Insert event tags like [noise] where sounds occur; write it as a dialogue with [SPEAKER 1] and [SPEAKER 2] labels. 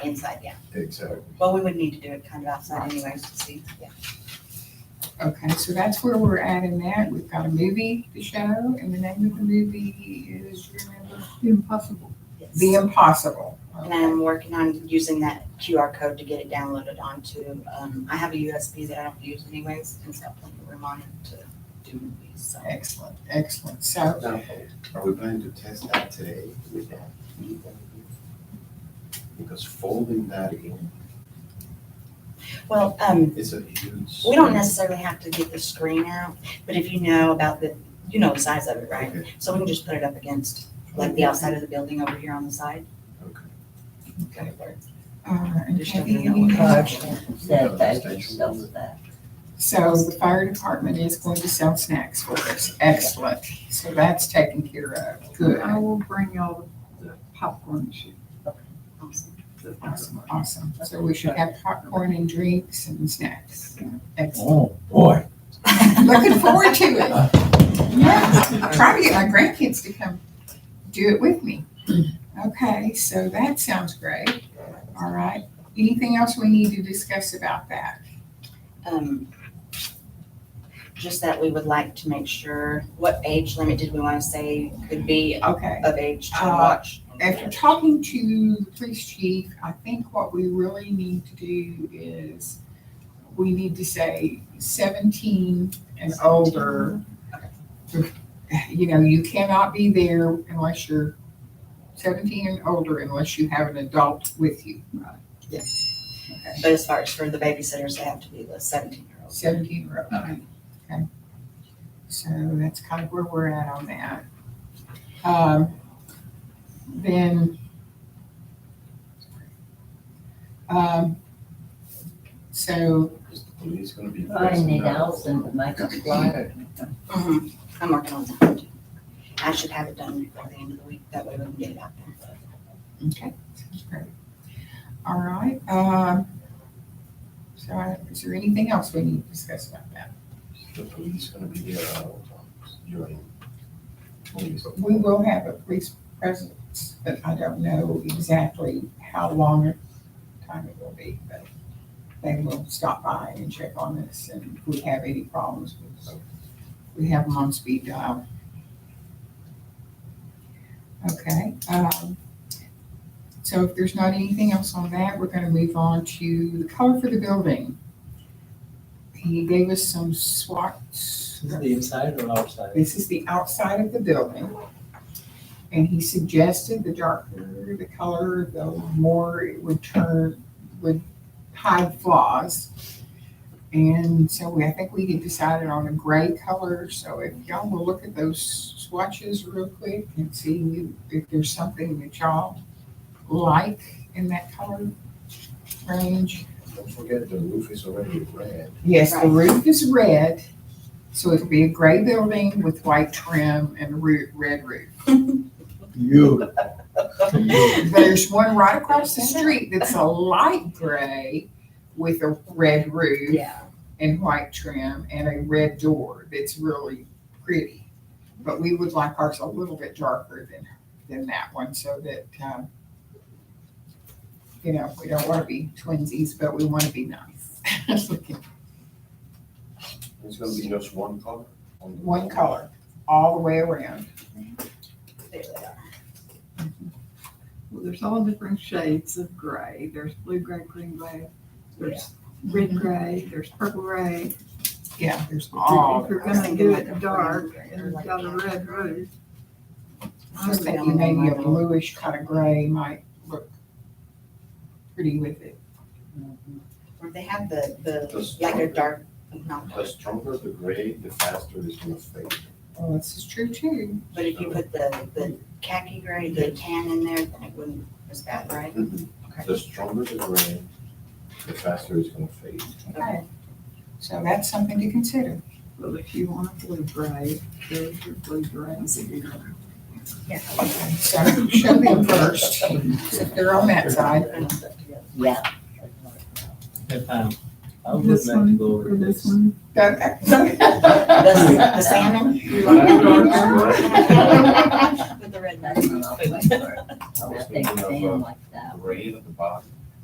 [SPEAKER 1] Inside, yeah.
[SPEAKER 2] Exactly.
[SPEAKER 1] Well, we would need to do it kind of outside anyways to see, yeah.
[SPEAKER 3] Okay, so that's where we're at in that. We've got a movie to show, and the name of the movie is, you remember?
[SPEAKER 4] The impossible.
[SPEAKER 3] The Impossible.
[SPEAKER 1] And I'm working on using that QR code to get it downloaded onto, um, I have a USB that I don't use anyways, and so I'll put the room on it to do movies, so.
[SPEAKER 3] Excellent, excellent. So, uh,
[SPEAKER 2] Now, are we planning to test that today with that? Because folding that in
[SPEAKER 1] Well, um,
[SPEAKER 2] is a huge.
[SPEAKER 1] we don't necessarily have to get the screen out, but if you know about the, you know the size of it, right?
[SPEAKER 2] Okay,
[SPEAKER 1] So we can just put it up against, like, the outside of the building over here on the side.
[SPEAKER 2] okay.
[SPEAKER 1] Okay.
[SPEAKER 3] uh, and
[SPEAKER 1] Just
[SPEAKER 3] Kathy,
[SPEAKER 1] don't
[SPEAKER 3] any
[SPEAKER 1] [laughs] know.
[SPEAKER 3] questions?
[SPEAKER 5] Setback and stuff like that.
[SPEAKER 3] So the fire department is going to sell snacks for us. Excellent. So that's taken care of. Good.
[SPEAKER 4] I will bring y'all the popcorn machine.
[SPEAKER 3] Awesome, awesome. So we should have popcorn and drinks and snacks. Excellent.
[SPEAKER 6] Oh, boy.
[SPEAKER 1] [laughs]
[SPEAKER 3] Looking forward to it. Yeah, trying to get my grandkids to come do it with me. Okay, so that sounds great. All right. Anything else we need to discuss about that?
[SPEAKER 1] um, just that we would like to make sure, what age limit did we want to say could be
[SPEAKER 3] Okay.
[SPEAKER 1] of age to
[SPEAKER 3] Uh,
[SPEAKER 1] watch?
[SPEAKER 3] After talking to the police chief, I think what we really need to do is we need to say seventeen and older. You know, you cannot be there unless you're seventeen and older unless you have an adult with you.
[SPEAKER 1] But as far as for the babysitters, they have to be the seventeen-year-olds.
[SPEAKER 3] Seventeen or over. Okay. So that's kind of where we're at on that. Um, then. Um, so,
[SPEAKER 2] Is the police gonna be
[SPEAKER 5] Find
[SPEAKER 2] present
[SPEAKER 5] it
[SPEAKER 2] now?
[SPEAKER 5] out and make a flyer.
[SPEAKER 1] Mhm.
[SPEAKER 3] Mm-hmm.
[SPEAKER 1] I'm working on that too. I should have it done before the end of the week, that way we can get it out there.
[SPEAKER 3] okay, that's great. All right, um, so I- is there anything else we need to discuss about that?
[SPEAKER 2] Is The police gonna be there at all times during. police?
[SPEAKER 3] We will have a police presence, but I don't know exactly how long a time it will be, but they will stop by and check on us, and if we have any problems, we'll- we have them on speed dial. Okay, um, so if there's not anything else on that, we're gonna move on to the color for the building. He gave us some swatches.
[SPEAKER 7] The inside or outside?
[SPEAKER 3] This is the outside of the building. And he suggested the darker the color, the more it would turn, would hide flaws. And so we, I think we had decided on a gray color, so if y'all will look at those swatches real quick and see if there's something that y'all like in that color range.
[SPEAKER 2] Don't forget the roof is already red.
[SPEAKER 3] Yes, the
[SPEAKER 1] Right.
[SPEAKER 3] roof is red, so it'll be a gray building with white trim and a roo- red roof.
[SPEAKER 6] You.
[SPEAKER 3] There's one right across the street that's a light gray with a red roof
[SPEAKER 1] Yeah.
[SPEAKER 3] and white trim and a red door that's really pretty. But we would like ours a little bit darker than, than that one so that, um, you know, we don't want to be twinsies, but we want to be nice. [laughs]
[SPEAKER 2] It's gonna be just one color? on the-
[SPEAKER 3] One color, all the way around.
[SPEAKER 1] There they are.
[SPEAKER 4] Well, there's all different shades of gray. There's blue gray, green gray, there's red gray, there's purple gray.
[SPEAKER 3] Yeah, there's all.
[SPEAKER 4] If you're gonna do it dark and it's got a red roof,
[SPEAKER 3] I was thinking maybe a bluish kind of gray might look pretty with it.
[SPEAKER 1] Or they have the, the,
[SPEAKER 2] Those-
[SPEAKER 1] like a dark, not
[SPEAKER 2] The
[SPEAKER 1] dark,
[SPEAKER 2] stronger the gray, the faster it's gonna fade.
[SPEAKER 3] Oh, this is true too.
[SPEAKER 1] but if you put the, the khaki gray, the tan in there, then it wouldn't, as bad, right? Okay.
[SPEAKER 2] The stronger the gray, the faster it's gonna fade.
[SPEAKER 3] Okay. So that's something to consider.
[SPEAKER 4] well, if you want a blue gray, there's your blue grays.
[SPEAKER 3] Okay, So show them first, so if they're on that [laughs] side.
[SPEAKER 5] Yeah.
[SPEAKER 7] If, um, I would like
[SPEAKER 4] This
[SPEAKER 7] to
[SPEAKER 4] one
[SPEAKER 7] go over
[SPEAKER 4] or this
[SPEAKER 7] this. [laughs]
[SPEAKER 4] [laughs] one?
[SPEAKER 3] Okay.
[SPEAKER 1] The, the salmon? With the red.
[SPEAKER 2] [laughs]
[SPEAKER 5] I think
[SPEAKER 2] I was thinking of, uh,
[SPEAKER 5] saying like that.
[SPEAKER 2] Gray at the bottom,